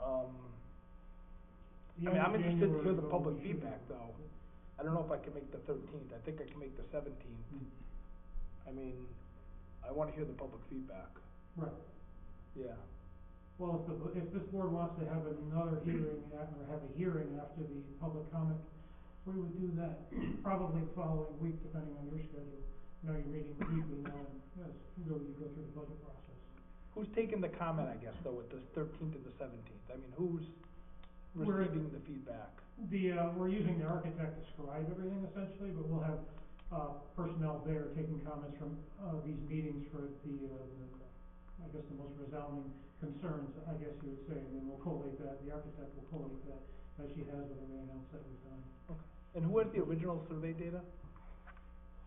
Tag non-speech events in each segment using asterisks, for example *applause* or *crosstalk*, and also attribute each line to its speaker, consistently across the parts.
Speaker 1: Um, I mean, I'm interested to hear the public feedback, though. I don't know if I can make the thirteenth, I think I can make the seventeenth. I mean, I wanna hear the public feedback,
Speaker 2: Right,
Speaker 1: yeah.
Speaker 2: well, if the, if this board wants to have another hearing, a- or have a hearing after the public comment, we would do that probably the following week, depending on your schedule. You know, you're meeting weekly now, and as you go, you go through the budget process.
Speaker 1: Who's taking the comment, I guess, though, at the thirteenth and the seventeenth? I mean, who's
Speaker 2: We're-
Speaker 1: receiving the feedback?
Speaker 2: The, uh, we're using the architect to scribe everything essentially, but we'll have, uh, personnel there taking comments from, uh, these meetings for the, uh, the- I guess the most resounding concerns, I guess you would say, and then we'll collate that, the architect will collate that, that she has with everything else that we've done.
Speaker 1: And who has the original survey data?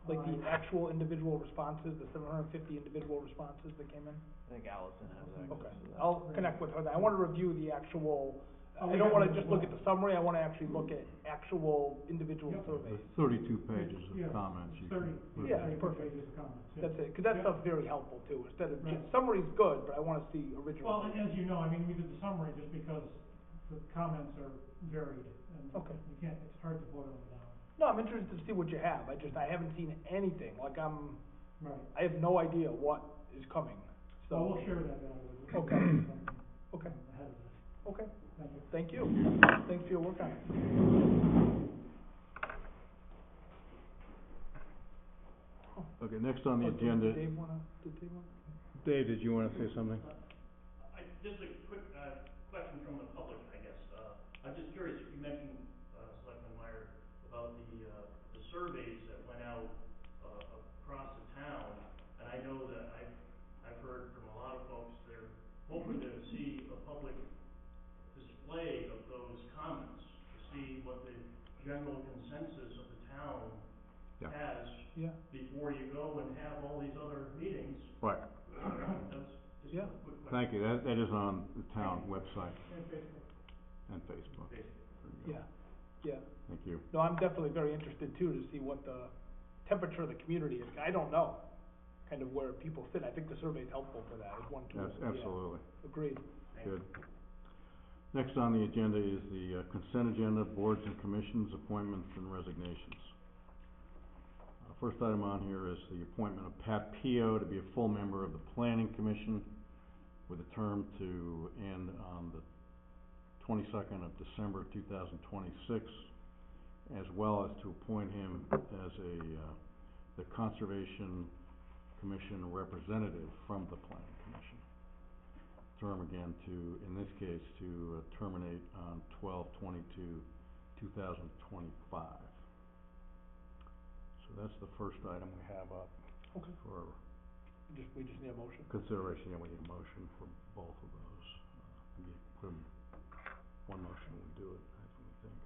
Speaker 1: Like the
Speaker 2: Uh,
Speaker 1: actual individual responses, the seven hundred and fifty individual responses that came in?
Speaker 3: I think Allison has access
Speaker 1: Okay,
Speaker 3: to that.
Speaker 1: I'll connect with her, then. I wanna review the actual,
Speaker 2: Oh,
Speaker 1: I
Speaker 2: we
Speaker 1: don't
Speaker 2: have
Speaker 1: wanna
Speaker 2: it as
Speaker 1: just look at
Speaker 2: well.
Speaker 1: the summary, I wanna actually look at actual individual
Speaker 2: Yep.
Speaker 1: surveys.
Speaker 4: Thirty-two pages
Speaker 2: Yeah,
Speaker 4: of comments you
Speaker 2: Thirty.
Speaker 4: can.
Speaker 1: Yeah, it's
Speaker 2: thirty
Speaker 1: perfect.
Speaker 2: pages of comments, yeah.
Speaker 1: That's it, 'cause that
Speaker 2: Yep.
Speaker 1: stuff's very helpful too, instead of,
Speaker 2: Right.
Speaker 1: just summary's good, but I wanna see original.
Speaker 2: Well, and as you know, I mean, we did the summary just because the comments are varied, and
Speaker 1: Okay.
Speaker 2: you can't, it's hard to boil it down.
Speaker 1: No, I'm interested to see what you have, I just, I haven't seen anything, like I'm,
Speaker 2: Right.
Speaker 1: I have no idea what is coming,
Speaker 2: Well, we'll
Speaker 1: so,
Speaker 2: share that now. with you.
Speaker 1: Okay. *clears throat* okay,
Speaker 2: Ahead of this.
Speaker 1: okay,
Speaker 2: Thank you.
Speaker 1: thank you, thanks for your work on it.
Speaker 4: Okay, next on the
Speaker 1: Oh, did
Speaker 4: agenda,
Speaker 1: Dave wanna, did Dave wanna?
Speaker 4: Dave, did you wanna say something?
Speaker 5: I, just a quick, uh, question from the public, I guess, uh, I'm just curious, you mentioned, uh, Selectman Meyer, about the, uh, the surveys that went out, uh, across the town, and I know that I've, I've heard from a lot of folks, they're hoping to see a public display of those comments, to see what the general consensus of the town
Speaker 4: Yeah.
Speaker 5: has
Speaker 1: Yeah,
Speaker 5: before you go and have all these other meetings,
Speaker 4: Right,
Speaker 5: that's just a
Speaker 1: Yeah.
Speaker 5: quick question.
Speaker 4: thank you, that, that is on the town website
Speaker 2: And Facebook.
Speaker 4: and Facebook.
Speaker 1: yeah, yeah.
Speaker 4: Thank you.
Speaker 1: No, I'm definitely very interested too, to see what the temperature of the community is, I don't know, kind of where people sit, I think the survey's helpful for that, is one tool.
Speaker 4: Abs-
Speaker 1: Yeah,
Speaker 4: Absolutely,
Speaker 1: Agreed.
Speaker 4: good. Next on the agenda is the uh, consent agenda, boards and commissions, appointments and resignations. Uh, First item on here is the appointment of Pat Pio to be a full member of the Planning Commission with a term to end on the twenty-second of December two thousand twenty-six, as well as to appoint him as a, uh, the Conservation Commission representative from the Planning Commission. Term again to, in this case, to uh, terminate on twelve twenty-two, two thousand twenty-five. So that's the first item we have up
Speaker 1: Okay.
Speaker 4: for
Speaker 1: Just, we just need a motion.
Speaker 4: consideration, yeah, we need a motion for both of those. Uh, We need put 'em- one motion would do it, I think.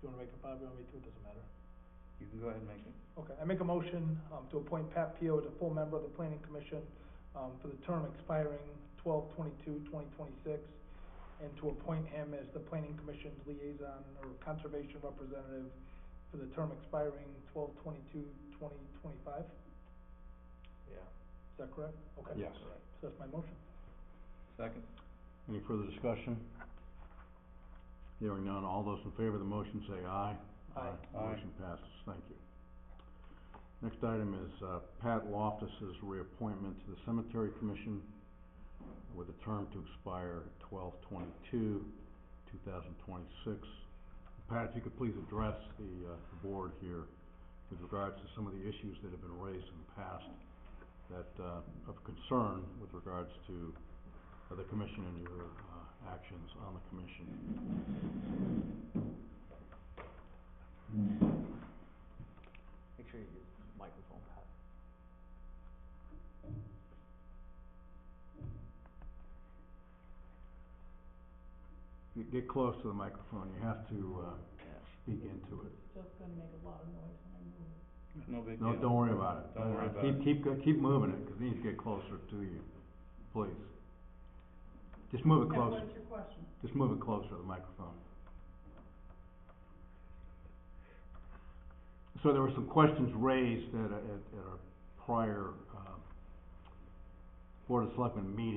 Speaker 1: Do you wanna make a five, you want me to, it doesn't matter.
Speaker 3: You can go ahead and make it.
Speaker 1: Okay, I make a motion, um, to appoint Pat Pio as a full member of the planning commission, um, for the term expiring twelve twenty-two, twenty twenty-six, and to appoint him as the planning commission's liaison or conservation representative for the term expiring twelve twenty-two, twenty twenty-five, is
Speaker 3: Yeah.
Speaker 1: that correct? Okay.
Speaker 4: Yes.
Speaker 1: So that's my motion.
Speaker 3: Second?
Speaker 4: Any further discussion? Hearing none, all those in favor of the motion say aye.
Speaker 1: Aye.
Speaker 3: Aye.
Speaker 4: Motion passes, thank you. Next item is, uh, Pat Loftus's reappointment to the Cemetery Commission with a term to expire twelve twenty-two, two thousand twenty-six. Pat, if you could please address the, uh, the board here with regards to some of the issues that have been raised in the past that, uh, of concern with regards to of the commission and your, uh, actions on the commission.
Speaker 3: Make sure you use the microphone, Pat.
Speaker 4: You Get close to the microphone, you have to, uh,
Speaker 3: Yeah.
Speaker 4: speak into it.
Speaker 3: No big
Speaker 4: No,
Speaker 3: deal.
Speaker 4: don't worry about it. Uh,
Speaker 3: Don't worry about
Speaker 4: Keep, keep, go- keep moving it, 'cause it needs to get closer to you, please. Just move it closer.
Speaker 6: your question?
Speaker 4: Just move it closer to the microphone. So there were some questions raised at, a- at, at our prior, uh, Board of Selectmen meeting